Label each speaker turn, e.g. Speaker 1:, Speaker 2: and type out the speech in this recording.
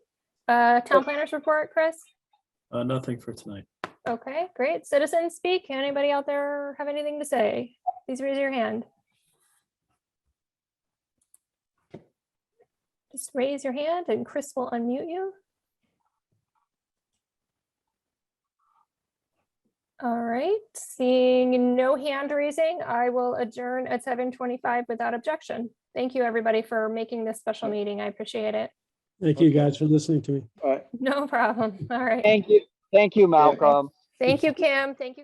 Speaker 1: Uh, town planners report, Chris?
Speaker 2: Uh, nothing for tonight.
Speaker 1: Okay, great. Citizens speak. Anybody out there have anything to say? Please raise your hand. Just raise your hand and Chris will unmute you. All right, seeing no hand raising, I will adjourn at seven twenty-five without objection. Thank you, everybody, for making this special meeting. I appreciate it.
Speaker 3: Thank you guys for listening to me.
Speaker 1: No problem. All right.
Speaker 4: Thank you, thank you, Malcolm.
Speaker 1: Thank you, Kim. Thank you.